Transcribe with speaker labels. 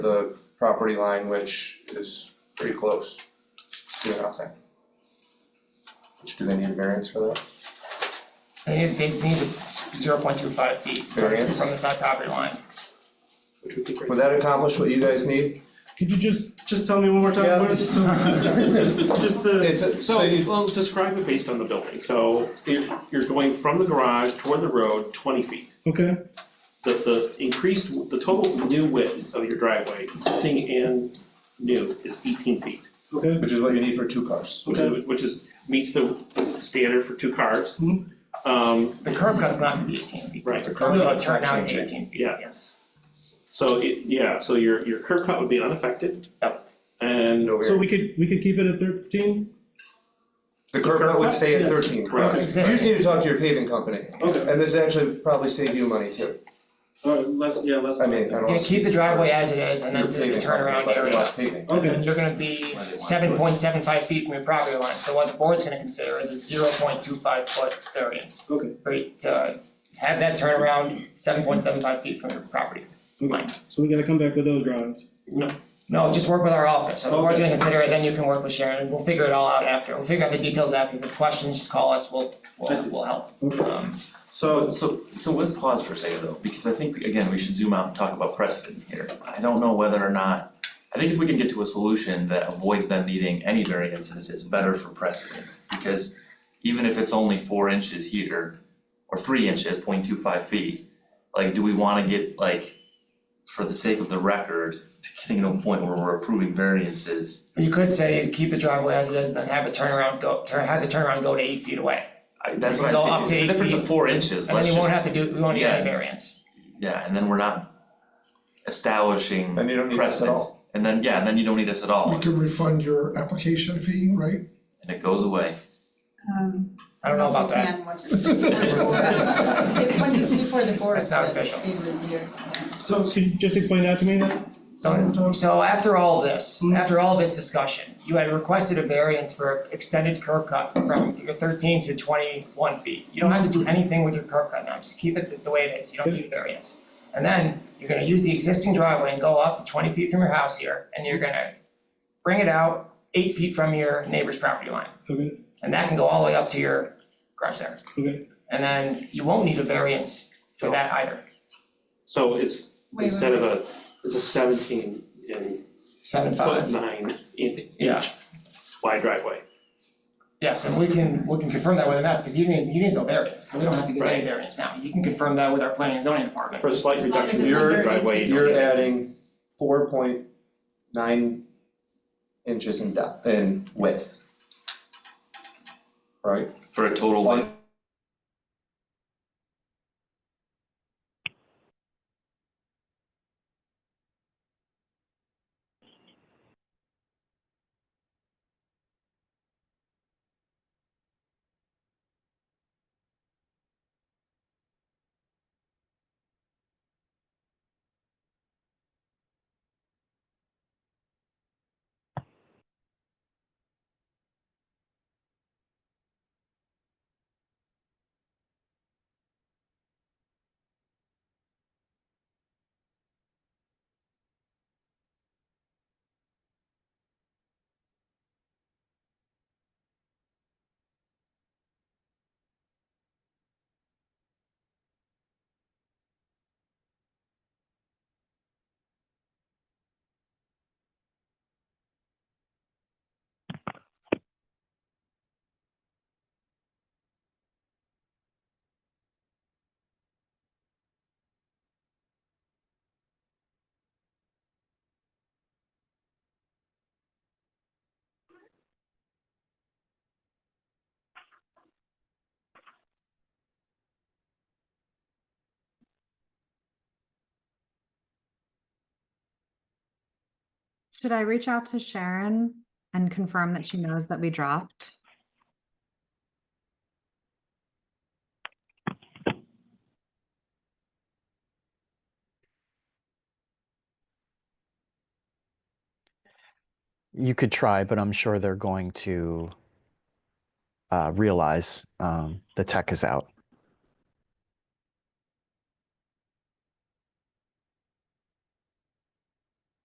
Speaker 1: the property line, which is pretty close to nothing. Which, do they need a variance for that?
Speaker 2: They need, they need zero point two five feet from
Speaker 1: Variance.
Speaker 2: the side property line.
Speaker 3: which would be great.
Speaker 1: Would that accomplish what you guys need?
Speaker 4: Could you just,
Speaker 3: Just tell me one more
Speaker 1: Yeah.
Speaker 3: time, what, so, just, just the,
Speaker 1: It's, a-
Speaker 3: so,
Speaker 1: so you,
Speaker 3: well, describe it based on the building, so you're, you're going from the garage toward the road twenty feet.
Speaker 4: okay,
Speaker 3: The, the increased, the total new width of your driveway, existing and new, is eighteen feet.
Speaker 4: okay,
Speaker 1: which is what you need for two cars.
Speaker 3: Which is, which is, meets the standard for two cars.
Speaker 4: Mhm.
Speaker 3: Um,
Speaker 2: The curb cut's not gonna be eighteen feet.
Speaker 3: right,
Speaker 1: The
Speaker 2: It's only
Speaker 1: curb
Speaker 2: gonna
Speaker 1: cut's
Speaker 2: turn
Speaker 1: not
Speaker 2: out to
Speaker 1: changing.
Speaker 2: eighteen feet,
Speaker 3: Yeah.
Speaker 2: yes.
Speaker 3: so it, yeah, so your, your curb cut would be unaffected.
Speaker 2: Yep.
Speaker 3: And
Speaker 1: No
Speaker 4: so
Speaker 1: variance.
Speaker 4: we could, we could keep it at thirteen?
Speaker 1: The curb cut would stay at thirteen, correct?
Speaker 3: Correct.
Speaker 1: You just need to talk to your paving company,
Speaker 5: Okay,
Speaker 1: and this actually probably save you money too.
Speaker 5: alright, let's, yeah, let's.
Speaker 1: I mean, I
Speaker 2: You're
Speaker 1: don't.
Speaker 2: gonna keep the driveway as it is and
Speaker 1: Your
Speaker 2: then do the
Speaker 1: paving company,
Speaker 2: turnaround
Speaker 1: but it's
Speaker 2: area.
Speaker 1: less paving.
Speaker 2: And
Speaker 4: Okay,
Speaker 2: then you're gonna be seven point seven five feet from your property line, so what the board's gonna consider is a zero point two five foot variance.
Speaker 5: Okay.
Speaker 2: For you to have that turnaround seven point seven five feet from your property.
Speaker 4: okay, so we gotta come back with those drawings.
Speaker 2: No, just work with our office, so the board's
Speaker 5: Okay.
Speaker 2: gonna consider it, then you can work with Sharon, we'll figure it all out after, we'll figure out the details after, if you have questions, just call us, we'll,
Speaker 5: I
Speaker 2: we'll,
Speaker 5: see.
Speaker 2: we'll help.
Speaker 4: Okay.
Speaker 2: Um,
Speaker 6: So, so, so let's pause for a second though, because I think, again, we should zoom out and talk about precedent here. I don't know whether or not, I think if we can get to a solution that avoids them needing any variances, it's better for precedent. Because even if it's only four inches here, or three inches, 0.25 feet, like, do we wanna get, like, for the sake of the record, to getting to a point where we're approving variances?
Speaker 2: You could say you keep the driveway as it is, and then have a turnaround go, turn, have the turnaround go to eight feet away,
Speaker 6: I, that's what I
Speaker 2: Go
Speaker 6: say,
Speaker 2: up to
Speaker 6: it's a
Speaker 2: eight
Speaker 6: difference of
Speaker 2: feet.
Speaker 6: four inches,
Speaker 2: and then
Speaker 6: let's
Speaker 2: you
Speaker 6: just,
Speaker 2: won't have to do, we won't need
Speaker 6: Yeah.
Speaker 2: any variance.
Speaker 6: yeah, and then we're not establishing
Speaker 1: And you don't need this at
Speaker 6: precedence.
Speaker 1: all.
Speaker 6: And then, yeah, and then you don't need us at all,
Speaker 7: We can refund your application fee, right?
Speaker 6: and it goes away.
Speaker 8: Um,
Speaker 2: I don't know about
Speaker 8: if we
Speaker 2: that,
Speaker 8: can once it's if- once it's before the board,
Speaker 2: That's not
Speaker 8: but it's
Speaker 2: official.
Speaker 8: being reviewed, yeah.
Speaker 4: So could you just explain that to me then?
Speaker 2: so, so after all this,
Speaker 4: Hmm.
Speaker 2: after all this discussion, you had requested a variance for extended curb cut from your thirteen to twenty-one feet. You don't have to do anything with your curb cut now, just keep it the- the way it is, you don't
Speaker 4: Good.
Speaker 2: need a variance. And then, you're gonna use the existing driveway and go up to twenty feet from your house here, and you're gonna bring it out eight feet from your neighbor's property line.
Speaker 4: Okay,
Speaker 2: And that can go all the way up to your garage there.
Speaker 4: okay,
Speaker 2: And then you won't need a variance for that either.
Speaker 3: so it's,
Speaker 8: Wait,
Speaker 3: instead
Speaker 8: wait,
Speaker 3: of a, it's a seventeen in
Speaker 2: Seven
Speaker 3: foot
Speaker 2: five.
Speaker 3: nine in-
Speaker 2: Yeah.
Speaker 3: inch wide driveway.
Speaker 2: Yes, and we can, we can confirm that with a map, because he needs, he needs no variance. We don't have to give any variance now. You can confirm that with our planning and zoning department.
Speaker 3: For a slight
Speaker 8: As long as
Speaker 3: reduction,
Speaker 8: it's
Speaker 3: your
Speaker 8: under
Speaker 3: driveway,
Speaker 8: 18.
Speaker 1: You're adding four point nine inches in depth, in width. Right?
Speaker 6: For a total length
Speaker 9: Should I reach out to Sharon and confirm that she knows that we dropped?
Speaker 10: You could try, but I'm sure they're going to uh, realize um, the tech is out.